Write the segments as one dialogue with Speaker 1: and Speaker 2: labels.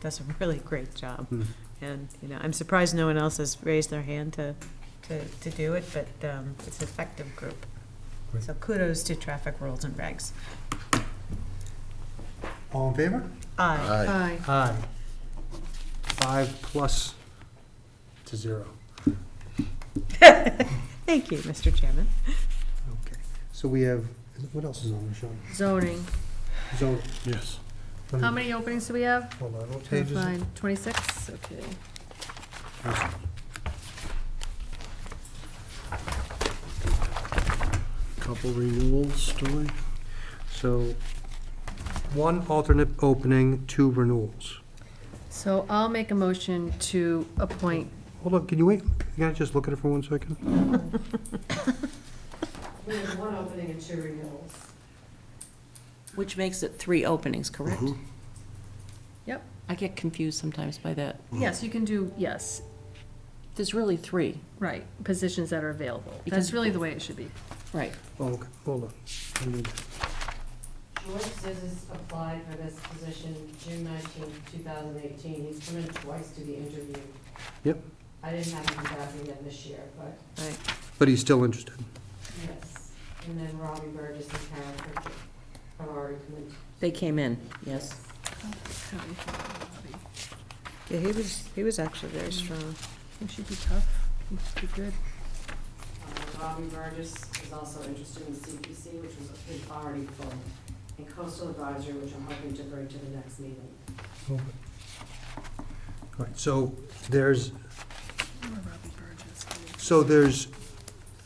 Speaker 1: does a really great job.
Speaker 2: Hmm.
Speaker 1: And, you know, I'm surprised no one else has raised their hand to, to, to do it, but um, it's an effective group.
Speaker 2: Great.
Speaker 1: So kudos to Traffic Rules and Regs.
Speaker 2: All in favor? Uh,
Speaker 1: Aye.
Speaker 3: Uh,
Speaker 4: Aye.
Speaker 2: Aye. Five plus to zero.
Speaker 1: Thank you, Mr. Chairman.
Speaker 2: Okay. So we have, what else is on the show?
Speaker 4: Zoning.
Speaker 2: Zone.
Speaker 5: Yes.
Speaker 4: How many openings do we have?
Speaker 2: Hold on, what page is it?
Speaker 4: Fine, Twenty-six, okay.
Speaker 5: Couple renewals, do
Speaker 2: So, one alternate opening, two renewals.
Speaker 4: So I'll make a motion to appoint,
Speaker 2: Hold on, can you wait? Can I just look at it for one second?
Speaker 6: We have one opening and two renewals.
Speaker 3: Which makes it three openings, correct?
Speaker 5: Mhm.
Speaker 4: Yep.
Speaker 3: I get confused sometimes by that.
Speaker 4: yes, you can do, yes,
Speaker 3: There's really three,
Speaker 4: right, positions that are available. That's
Speaker 3: Because-
Speaker 4: really the way it should be.
Speaker 3: right?
Speaker 2: Oh, okay, hold on. I need-
Speaker 6: George Zizes applied for this position June nineteenth, two thousand eighteen. He's come in twice to be interviewed.
Speaker 2: Yep.
Speaker 6: I didn't have him back again this year, but
Speaker 3: Right.
Speaker 2: But he's still interested.
Speaker 6: yes. And then Robbie Burgess and Karen Pritchett have already come in.
Speaker 3: They came in, yes.
Speaker 4: It
Speaker 1: Yeah, he was, he was actually very strong.
Speaker 4: should be tough, it should be good.
Speaker 6: Uh, Robbie Burgess is also interested in CPC, which was is already full, and Coastal Advisory, which I'm hoping to bring to the next meeting.
Speaker 2: All right, so there's, so there's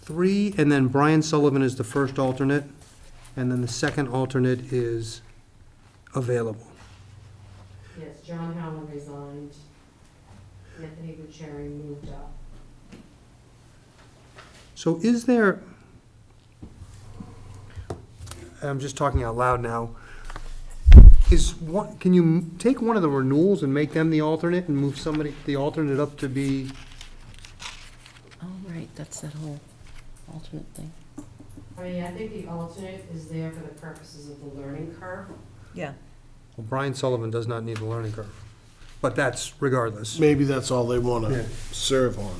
Speaker 2: three, and then Brian Sullivan is the first alternate, and then the second alternate is available.
Speaker 6: Yes, John Howland resigned. Anthony Bucherri moved up.
Speaker 2: So is there, I'm just talking out loud now, is one, can you m- take one of the renewals and make them the alternate and move somebody, the alternate up to be,
Speaker 3: Oh, right, that's that whole alternate thing.
Speaker 6: I mean, I think the alternate is there for the purposes of the learning curve.
Speaker 1: Yeah.
Speaker 2: well, Brian Sullivan does not need the learning curve, but that's regardless.
Speaker 5: Maybe that's all they want
Speaker 2: Yeah.
Speaker 5: to serve on.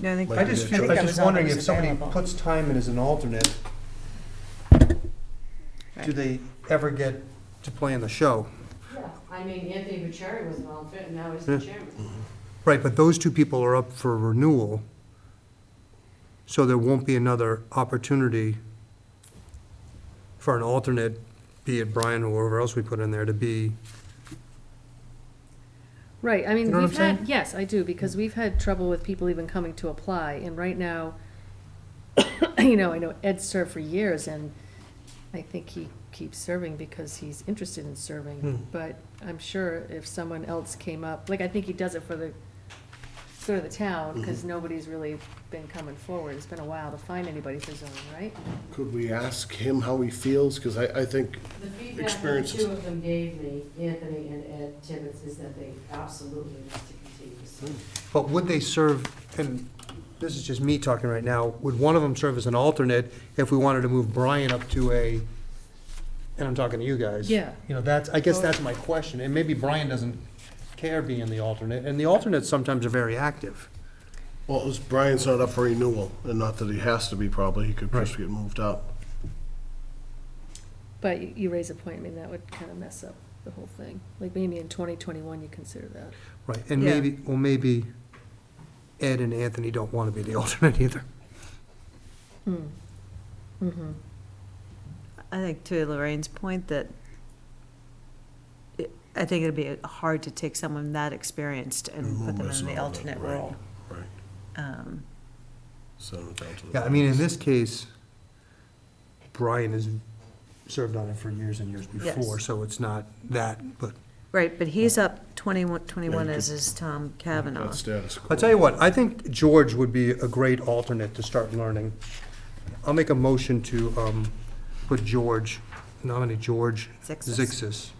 Speaker 1: No, I think.
Speaker 2: I just feel,
Speaker 1: think
Speaker 2: I'm
Speaker 1: that
Speaker 2: just
Speaker 1: was all that
Speaker 2: wondering if
Speaker 1: was
Speaker 2: somebody
Speaker 1: available.
Speaker 2: puts time in as an alternate, do they ever get to play in the show?
Speaker 6: Yeah. I mean, Anthony Bucherri was an alternate, and now he's the chairman.
Speaker 2: Right, but those two people are up for renewal, so there won't be another opportunity for an alternate, be it Brian or whoever else we put in there, to be,
Speaker 4: Right, I
Speaker 2: You
Speaker 4: mean,
Speaker 2: know what
Speaker 4: we've
Speaker 2: I'm saying?
Speaker 4: had, yes, I do, because we've had trouble with people even coming to apply, and right now, you know, I know Ed served for years, and I think he keeps serving because he's interested in
Speaker 2: Hmm.
Speaker 4: serving, but I'm sure if someone else came up, like, I think he does it for the good of the
Speaker 2: Mm-hmm.
Speaker 4: town, because nobody's really been coming forward, it's been a while to find anybody for zoning, right?
Speaker 5: Could we ask him how he feels? Because I, I think,
Speaker 6: The feedback that the
Speaker 5: Experiences.
Speaker 6: two of them gave me, Anthony and Ed Tibbetts, is that they absolutely want to continue. So
Speaker 2: but would they serve, and this is just me talking right now, would one of them serve as an alternate if we wanted to move Brian up to a, and I'm talking to you guys.
Speaker 4: Yeah.
Speaker 2: You know, that's, I guess that's my question, and maybe Brian doesn't care being the alternate, and the alternates sometimes are very active.
Speaker 5: well, it was- Brian's not up for renewal, and not that he has to be probably, he could just get moved up.
Speaker 4: But you- you raise a point, I mean, that would kind of mess up the whole thing, like, maybe in twenty twenty-one, you consider that.
Speaker 2: Right, and
Speaker 1: Yeah.
Speaker 2: maybe, well, maybe Ed and Anthony don't want to be the alternate either.
Speaker 4: Mm-hmm.
Speaker 1: I think to Lorraine's point that it- I think it'd be hard to take someone that experienced and put them
Speaker 5: Move us
Speaker 1: in the
Speaker 5: all up,
Speaker 1: alternate
Speaker 5: right,
Speaker 1: role.
Speaker 5: Right,
Speaker 1: Um,
Speaker 5: send him down to the.
Speaker 2: Yeah, I mean, in this case, Brian has served on it for years and years before,
Speaker 1: Yes.
Speaker 2: so it's not that, but.
Speaker 1: Right, but he's up 21 21
Speaker 5: Yeah, you
Speaker 1: as is Tom Kavanaugh.
Speaker 5: That's status quo.
Speaker 2: I'll tell you what, I think George would be a great alternate to start learning. I'll make a motion to, um, put George, nominate George
Speaker 1: Zixis.
Speaker 2: Zixis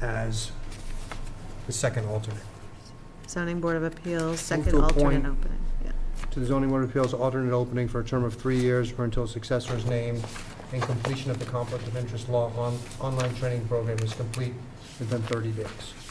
Speaker 2: as the second alternate.
Speaker 1: Zoning Board of Appeals, second
Speaker 2: to appoint-
Speaker 1: alternate opening. Yeah.
Speaker 2: to the zoning board of appeals alternate opening for a term of three years or until a successor is named and completion of the conflict of interest law on, online training program is complete within thirty days.